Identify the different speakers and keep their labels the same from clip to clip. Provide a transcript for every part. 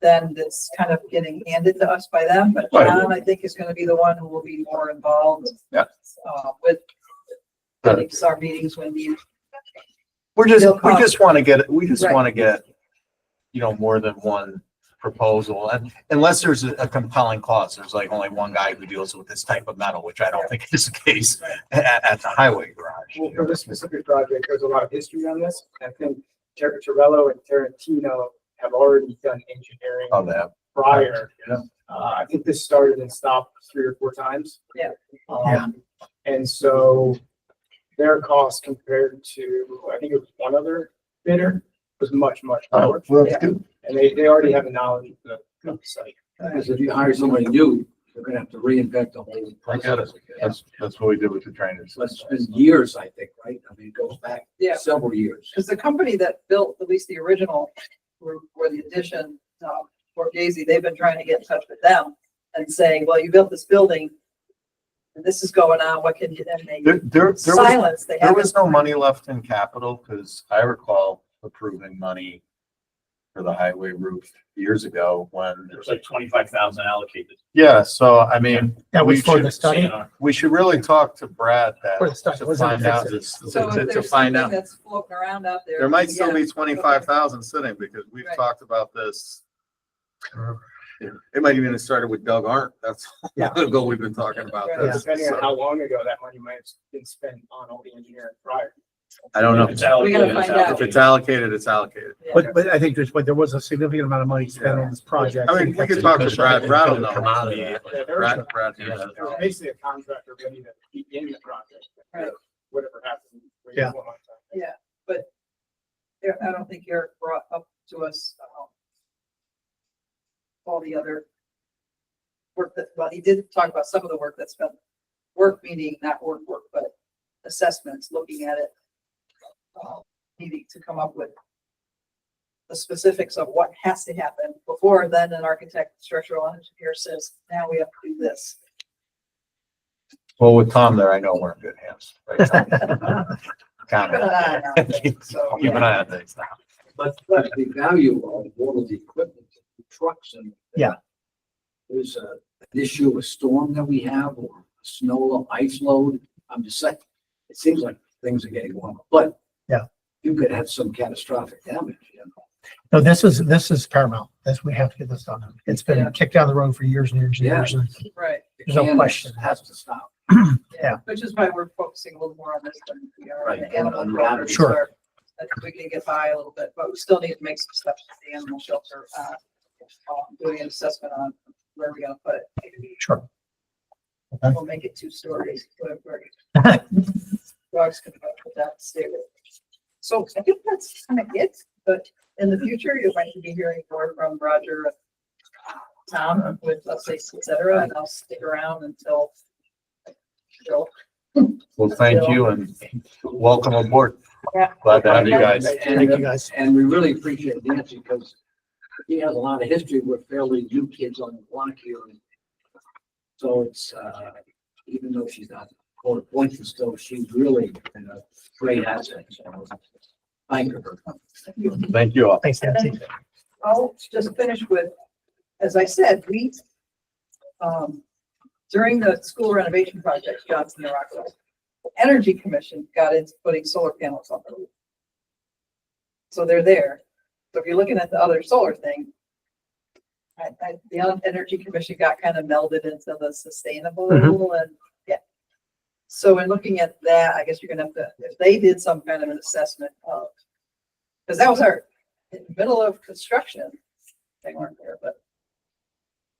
Speaker 1: then that's kind of getting handed to us by them, but
Speaker 2: Right.
Speaker 1: John, I think, is gonna be the one who will be more involved.
Speaker 2: Yeah.
Speaker 1: Uh, with
Speaker 2: Right.
Speaker 1: getting our meetings when needed.
Speaker 2: We're just,
Speaker 1: They'll
Speaker 2: we
Speaker 1: come.
Speaker 2: just want to get, we just
Speaker 1: Right.
Speaker 2: want to get, you know, more than one proposal. And unless there's a compelling cause, there's like only one guy who deals with this type of metal, which I don't think is the case at, at the highway
Speaker 3: Well, for
Speaker 2: garage.
Speaker 3: this specific project, there's a lot of history on this. I think Jerry Torello and Tarantino have already done engineering
Speaker 2: Of that.
Speaker 3: prior.
Speaker 2: Yeah.
Speaker 3: Uh, I think this started and stopped three or four times.
Speaker 1: Yeah.
Speaker 3: Um,
Speaker 2: Yeah.
Speaker 3: And so their cost compared to, I think it was one other bidder, was much, much lower.
Speaker 2: Oh, Well,
Speaker 1: that's
Speaker 3: And they, they already have a knowledge of the site.
Speaker 4: Because if you hire somebody new, you're gonna have to reinvent the whole
Speaker 2: I get it.
Speaker 4: process. again.
Speaker 2: That's, that's what we did with the trainers.
Speaker 4: So it's been years, I think, right? I mean, it goes back
Speaker 1: Yeah.
Speaker 4: several years.
Speaker 1: Because the company that built at least the original, or, or the addition, um, for Daisy, they've been trying to get in touch with them and saying, well, you built this building. And this is going on, what can you, and they
Speaker 2: There, there, there was
Speaker 1: silence, they
Speaker 2: There
Speaker 1: haven't,
Speaker 2: was no money left in capital, because I recall approving money for the highway roof years ago when,
Speaker 5: There was like twenty-five thousand allocated.
Speaker 2: yeah, so I mean.
Speaker 6: That was
Speaker 2: we
Speaker 6: for
Speaker 2: should-
Speaker 6: the study?
Speaker 2: We should really talk to Brad that,
Speaker 6: For the study,
Speaker 2: to
Speaker 6: wasn't it
Speaker 2: find out,
Speaker 6: fixed?
Speaker 2: this-
Speaker 1: so
Speaker 2: to, to-
Speaker 1: if
Speaker 2: to
Speaker 1: there's something
Speaker 2: find out.
Speaker 1: that's floating around out there.
Speaker 2: There might still
Speaker 1: yeah.
Speaker 2: be twenty-five thousand sitting, because we've
Speaker 1: Right.
Speaker 2: talked about this. It might even have started with Doug Arndt, that's how long ago we've been talking about
Speaker 1: Right.
Speaker 2: this.
Speaker 3: Depending on
Speaker 2: so
Speaker 3: how long ago that money might have been spent on all the engineering prior.
Speaker 2: I don't know.
Speaker 5: It's allocated,
Speaker 1: We gotta
Speaker 5: it's
Speaker 1: find out.
Speaker 2: If it's allocated, it's allocated.
Speaker 1: Yeah.
Speaker 6: But, but I think there's, but there was a significant amount of money spent on this project.
Speaker 2: I mean, we could talk to Brad, Brad will know.
Speaker 7: Come out of that.
Speaker 3: Yeah, there was-
Speaker 2: Brad, Brad. knows.
Speaker 3: It was basically a contractor ready to begin the project.
Speaker 1: Right.
Speaker 3: Whatever happened. we
Speaker 6: Yeah.
Speaker 3: won't have time.
Speaker 1: Yeah, I don't think Eric brought up to us, um, all the other work that, well, he did talk about some of the work that's been, work meaning not work, work, but assessments, looking at it. um, Needing to come up with the specifics of what has to happen before then an architect, structural engineer says, now we have to do this.
Speaker 2: Well, with Tom there, I know we're in good hands. right, Tom?
Speaker 1: Keep an eye on
Speaker 2: Keep
Speaker 1: things, so, yeah.
Speaker 2: an eye on things now.
Speaker 4: But, but the value of all of the equipment, the trucks and.
Speaker 6: Yeah.
Speaker 4: There's a, an issue with storm that we have or snow, ice load. I'm just saying, it seems like things are getting warmer, but.
Speaker 6: Yeah.
Speaker 4: You could have some catastrophic damage, you know?
Speaker 6: No, this is, this is paramount. That's, we have to get this done. It's been kicked down the road for years and years and years. and
Speaker 1: Right,
Speaker 6: There's no
Speaker 4: It can-
Speaker 6: question.
Speaker 4: Has to stop.
Speaker 6: Yeah.
Speaker 1: which is why we're focusing a little more on this than we are on
Speaker 4: Right,
Speaker 1: the animal.
Speaker 4: on- on
Speaker 1: shelter.
Speaker 4: matters.
Speaker 6: Sure.
Speaker 1: I think we can get by a little bit, but we still need to make some steps to the animal shelter, uh, uh, doing an assessment on where we're gonna put it.
Speaker 6: Sure.
Speaker 1: We'll make it two stories, whatever. Dogs can go up that stairs. So I think that's kind of it, but in the future, you might be hearing more from Roger and uh, Tom with updates, et cetera, and I'll stick around until Jill
Speaker 2: Well, thank you and welcome aboard.
Speaker 1: Yeah.
Speaker 2: Glad to have you guys.
Speaker 4: And,
Speaker 6: Thank
Speaker 4: uh,
Speaker 6: you, guys.
Speaker 4: And we really appreciate Nancy because he has a lot of history. We're fairly new kids on the block here. So it's, uh, even though she's not court appointed still, she's really been a great asset. So Thank her.
Speaker 2: Thank you all.
Speaker 6: Thanks, Nancy.
Speaker 1: I'll just finish with, as I said, we, um, during the school renovation project, Johnson and Rockwell, Energy Commission got into putting solar panels on the roof. So they're there. So if you're looking at the other solar thing, I, I, the Energy Commission got kind of melded into the sustainable and, yeah. So in looking at that, I guess you're gonna have to, if they did some kind of an assessment of, because that was our, in the middle of construction. They weren't there, but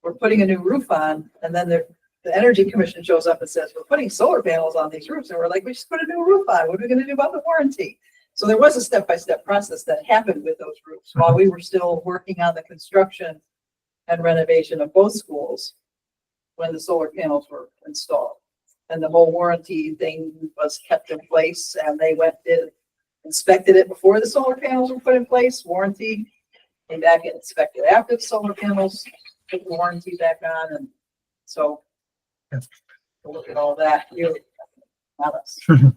Speaker 1: we're putting a new roof on and then the, the energy commission shows up and says, we're putting solar panels on these roofs. And we're like, we just put a new roof on. What are we gonna do about the warranty? So there was a step-by-step process that happened with those roofs while we were still working on the construction and renovation of both schools when the solar panels were installed. And the whole warranty thing was kept in place and they went, did inspected it before the solar panels were put in place, warranty. Came back and inspected after the solar panels, put the warranty back on and so.
Speaker 6: Yes.
Speaker 1: Look at all that, you, not us.
Speaker 6: Mhm.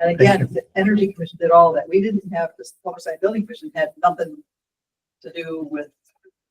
Speaker 1: And again, the Energy Commission did all that. We didn't have, this Public Site Building Commission had nothing to do with